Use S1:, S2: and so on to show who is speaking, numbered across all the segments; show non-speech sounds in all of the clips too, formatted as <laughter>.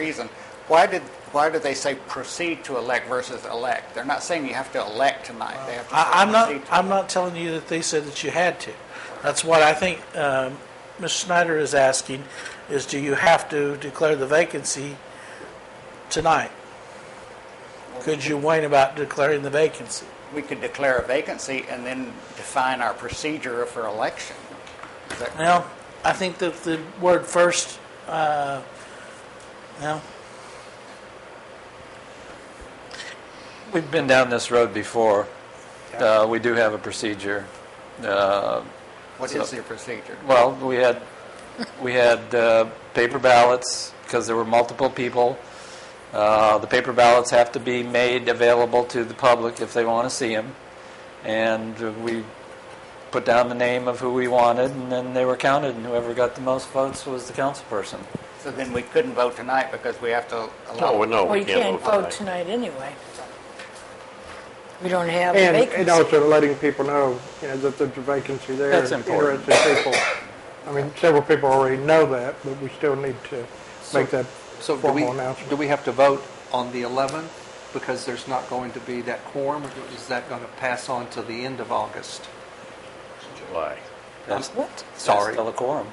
S1: reason. Why did, why did they say proceed to elect versus elect? They're not saying you have to elect tonight. They have to. say
S2: I, I'm not,
S1: proceed to
S2: I'm not telling you that they said that you had to. That's what I think, um, Ms. Snyder is asking, is do you have to declare the vacancy tonight? Could you whine about declaring the vacancy?
S1: We could declare a vacancy and then define our procedure for election. Is that-
S2: Well, I think that the word first, uh, no,
S3: We've been down this road before. Uh, We do have a procedure. Uh,
S1: What is your procedure?
S3: Well, we had, we had uh, paper ballots, because there were multiple people. Uh, The paper ballots have to be made available to the public if they want to see them. And we put down the name of who we wanted, and then they were counted, and whoever got the most votes was the council person.
S1: So then we couldn't vote tonight because we have to allow.
S4: No, no,
S5: Well,
S4: we
S5: you can't
S4: can't
S5: vote
S4: vote tonight.
S5: tonight anyway. We don't have a
S6: And, and
S5: vacancy.
S6: also letting people know, you know, that there's a vacancy there.
S3: That's
S6: and
S3: important.
S6: Interested people. I mean, several people already know that, but we still need to make that
S7: So do we,
S6: formal
S7: do
S6: announcement.
S7: we have to vote on the 11th because there's not going to be that quorum? or Is that going to pass on to the end of August?
S4: July.
S3: That's-
S5: What?
S3: that's
S7: Sorry.
S3: Still a quorum.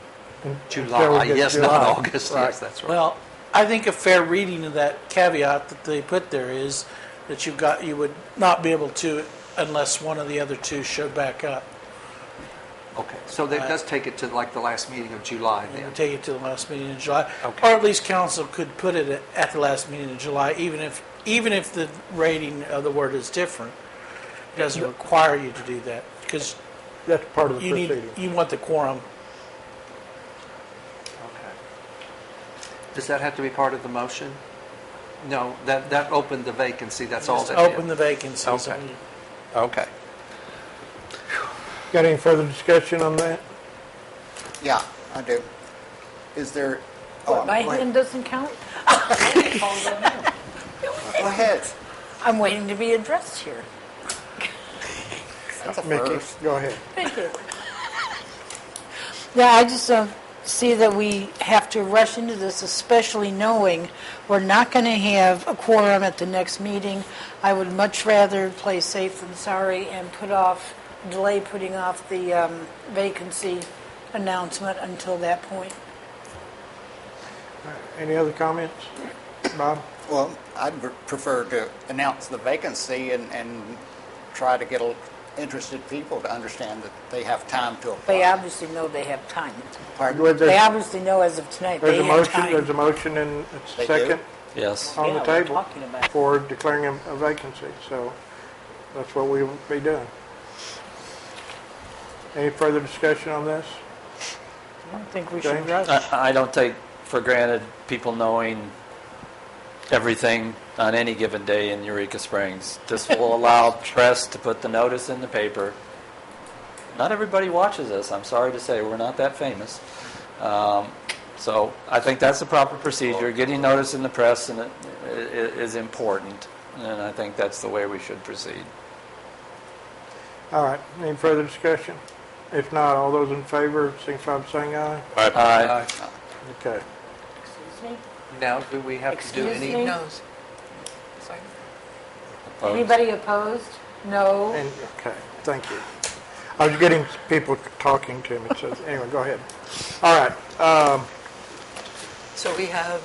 S7: July,
S6: get
S7: yes, not
S6: July.
S7: August, yes, that's right.
S2: Well, I think a fair reading of that caveat that they put there is that you've got, you would not be able to unless one of the other two showed back up.
S7: Okay, so that does take it to like the last meeting of July then?
S2: And take it to the last meeting in July.
S7: Okay.
S2: Or at least council could put it at- at the last meeting in July, even if, even if the rating of the word is different. It doesn't require you to do that, because
S6: That's part of the
S2: you need,
S6: proceeding.
S2: you want the quorum.
S7: Okay. Does that have to be part of the motion? No, that, that opened the vacancy, that's all
S2: Just
S7: that did.
S2: open the vacancies.
S7: Okay. Okay.
S6: Got any further discussion on that?
S1: Yeah, I do. Is there? oh,
S5: What, My
S1: go ahead.
S5: hand doesn't count? <laughs>
S1: Go ahead.
S5: I'm waiting to be addressed here.
S1: That's a
S6: Mickey,
S1: first.
S6: go ahead.
S5: Thank you. Yeah, I just don't see that we have to rush into this, especially knowing we're not going to have a quorum at the next meeting. I would much rather play safe than sorry and put off, delay putting off the um, vacancy announcement until that point.
S6: Any other comments? Bob?
S1: Well, I'd pre- prefer to announce the vacancy and, and try to get a- interested people to understand that they have time to apply.
S5: They obviously know they have time.
S1: Pardon?
S6: There's-
S5: They obviously know as of tonight they
S6: There's a
S5: have
S6: motion,
S5: time.
S6: there's a motion and a
S1: They do.
S6: second
S3: Yes.
S6: on the
S5: Yeah, we're
S6: table
S5: talking about it.
S6: for declaring a a vacancy, so that's what we'll be doing. Any further discussion on this?
S5: I don't think we should
S6: James?
S5: rush.
S3: I I don't take for granted people knowing everything on any given day in Eureka Springs. This will allow press to put the notice in the paper. Not everybody watches us, I'm sorry to say, we're not that famous. Um, So I think that's the proper procedure, getting notice in the press and it- i- i- is important, and I think that's the way we should proceed.
S6: All right, any further discussion? If not, all those in favor, signify by saying aye.
S3: Aye.
S6: Okay.
S5: Excuse me?
S7: Uh, Now, do we have to do
S5: Excuse
S7: any?
S5: me?
S7: no's?
S3: Opposed?
S5: Anybody opposed? No.
S6: And, okay, thank you. I was getting people talking to me, so anyway, go ahead. All right, um,
S8: So we have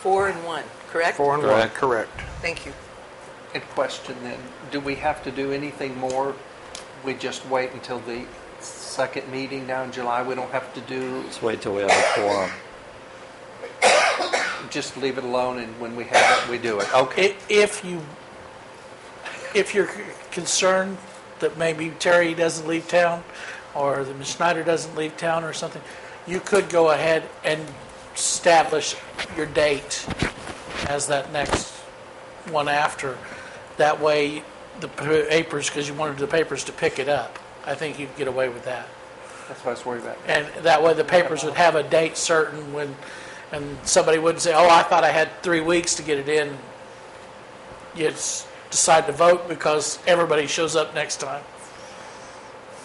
S8: four and one, correct?
S6: four and one,
S3: Correct.
S6: correct.
S8: Thank you.
S7: And question then, do we have to do anything more? We just wait until the second meeting now in July? We don't have to do,
S3: Let's wait till we have a quorum.
S7: just leave it alone and when we have it, we do
S2: Oh.
S7: it? Okay.
S2: I- If you, if you're concerned that maybe Terry doesn't leave town, or that Ms. Snyder doesn't leave town or something, you could go ahead and establish your date as that next one after. That way, the papers, because you wanted the papers to pick it up. I think you'd get away with that.
S7: That's what I was worried about.
S2: And that way, the papers would have a date certain when, and somebody wouldn't say, oh, I thought I had three weeks to get it in. You just decide to vote because everybody shows up next time.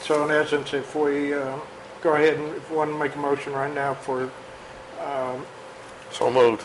S6: So in essence, if we, uh, go ahead and, if one make a motion right now for
S4: So moved.